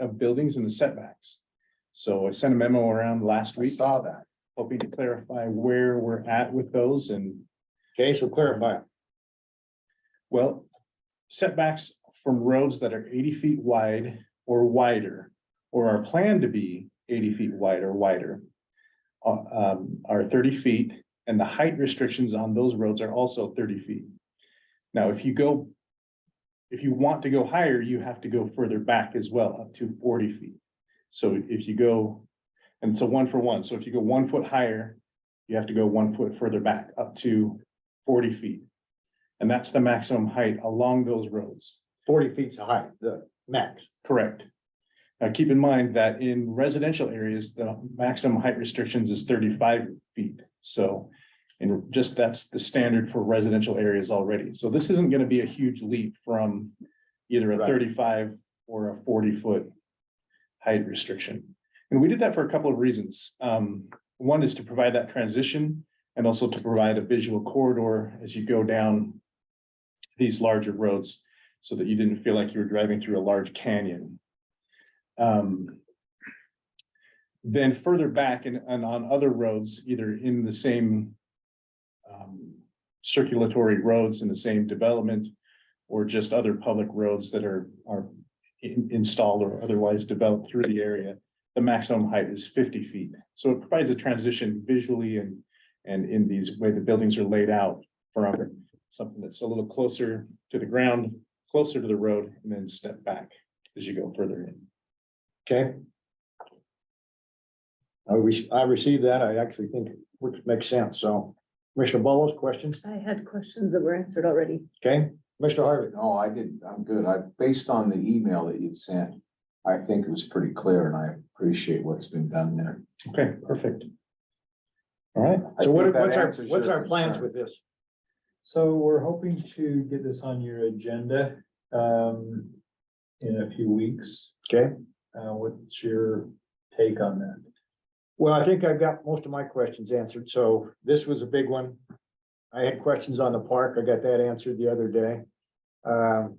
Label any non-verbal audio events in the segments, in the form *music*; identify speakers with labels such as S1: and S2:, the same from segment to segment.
S1: of buildings and the setbacks. So I sent a memo around last
S2: We
S1: week,
S2: saw that.
S1: hoping to clarify where we're at with those and,
S2: Okay, so clarify.
S1: well, setbacks from roads that are eighty feet wide or wider, or are planned to be eighty feet wide or wider, uh, um, are thirty feet, and the height restrictions on those roads are also thirty feet. Now, if you go, if you want to go higher, you have to go further back as well, up to forty feet. So if you go, and it's a one for one, so if you go one foot higher, you have to go one foot further back, up to forty feet. And that's the maximum height along those roads.
S2: Forty feet's high, the max.
S1: Correct. Now, keep in mind that in residential areas, the maximum height restrictions is thirty-five feet, so. And just that's the standard for residential areas already, so this isn't gonna be a huge leap from either a
S2: Right.
S1: thirty-five or a forty-foot. Height restriction, and we did that for a couple of reasons, um, one is to provide that transition. And also to provide a visual corridor as you go down. These larger roads so that you didn't feel like you were driving through a large canyon. Um, Then further back and, and on other roads, either in the same um, circulatory roads in the same development or just other public roads that are, are in- installed or otherwise developed through the area, the maximum height is fifty feet. So it provides a transition visually and, and in these, way the buildings are laid out from something that's a little closer to the ground closer to the road and then step back as you go further in.
S2: Okay. I re- I received that. I actually think it would- makes sense. So Commissioner Bolos, questions?
S3: I had questions that were answered already.
S2: Okay, Mr. Harvey.
S4: No, I didn't. I'm good. I, based on the email that you'd sent, I think it was pretty clear and I appreciate what's been done there.
S1: Okay, perfect. All right,
S2: So what,
S4: think that
S2: what's our,
S4: answers
S2: what's
S4: your
S2: our plans
S4: concern.
S2: with this?
S5: So we're hoping to get this on your agenda um in a few weeks.
S2: Okay.
S5: Uh, what's your take on that?
S2: Well, I think I've got most of my questions answered, so this was a big one. I had questions on the park, I got that answered the other day. Um,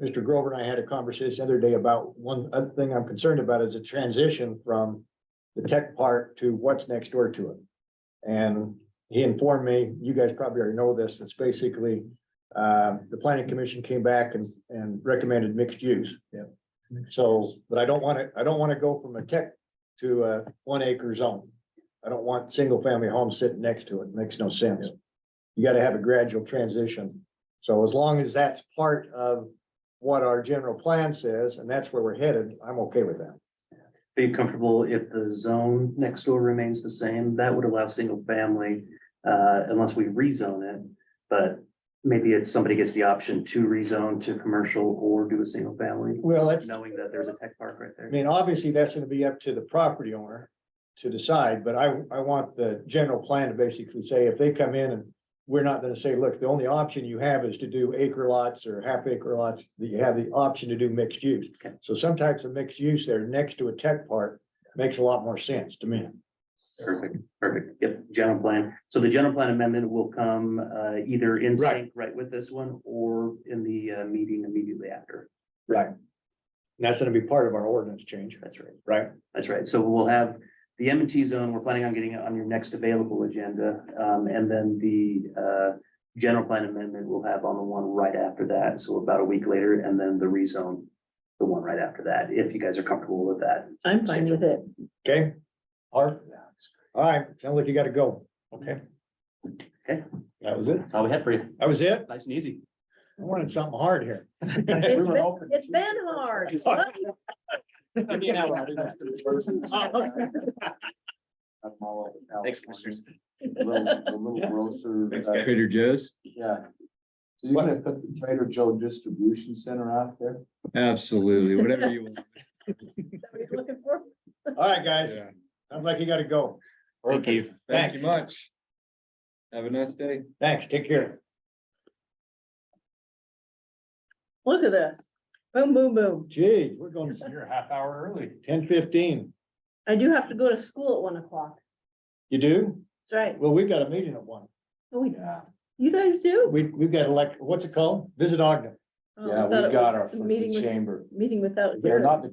S2: Mr. Grover and I had a conversation the other day about one other thing I'm concerned about is a transition from the tech park to what's next door to it. And he informed me, you guys probably already know this, it's basically, uh, the planning commission came back and, and recommended mixed use.
S5: Yeah.
S2: So, but I don't want to, I don't want to go from a tech to a one acre zone. I don't want single family homes sitting next to it. Makes no sense. You gotta have a gradual transition. So as long as that's part of what our general plan says, and that's where we're headed, I'm okay with that.
S6: Are you comfortable if the zone next door remains the same? That would allow single family, uh, unless we rezone it. But maybe it's somebody gets the option to rezone to commercial or do a single family,
S2: Well, that's, I
S6: knowing that there's a tech park right there.
S2: mean, obviously, that's gonna be up to the property owner to decide, but I, I want the general plan to basically say, if they come in and we're not gonna say, look, the only option you have is to do acre lots or half acre lots, that you have the option to do mixed use.
S6: Okay.
S2: So some types of mixed use there next to a tech park makes a lot more sense to me.
S6: Perfect, perfect. Yep, general plan. So the general plan amendment will come, uh, either in
S2: Right.
S6: sync right with this one or in the, uh, meeting immediately after.
S2: Right. And That's gonna be part of our ordinance change,
S6: That's right.
S2: right?
S6: That's right. So we'll have the M and T zone, we're planning on getting it on your next available agenda. Um, and then the, uh, general plan amendment we'll have on the one right after that. So about a week later, and then the rezone, the one right after that, if you guys are comfortable with that.
S3: I'm fine with it.
S2: Okay? Art? All right, sounds like you gotta go.
S1: okay.
S6: Okay.
S1: That was it.
S6: That's all we have for you.
S2: That was it?
S6: Nice and easy.
S2: I wanted something hard here.
S3: It's been, it's been hard.
S2: *laughs*
S4: I'm all over California.
S6: Thanks, commissioners.
S4: Little- the little grocer, uh,
S7: Trader Joe's?
S4: Yeah. So you're gonna put the Trader Joe Distribution Center out there?
S7: Absolutely, whatever you want.
S3: Somebody looking for-
S2: All right, guys,
S7: Yeah.
S2: sounds like you gotta go.
S6: Thank you.
S7: Thank you
S2: Thanks.
S7: much. Have a nice day.
S2: Thanks, take care.
S3: Look at this. Boom, boom, boom.
S2: Gee, we're going
S1: You're a half hour early.
S2: ten fifteen.
S3: I do have to go to school at one o'clock.
S2: You do?
S3: That's right.
S2: Well, we've got a meeting at one.
S3: Oh, we-
S4: Yeah.
S3: You guys do?
S2: We, we've got elect, what's it called? Visit Ogden.
S3: Oh, I
S2: Yeah,
S3: thought
S2: we
S3: it
S2: got
S3: was
S2: our
S3: Meeting,
S2: meeting
S3: with-
S2: chamber.
S3: meeting without.
S2: They're
S3: hearing.
S2: not the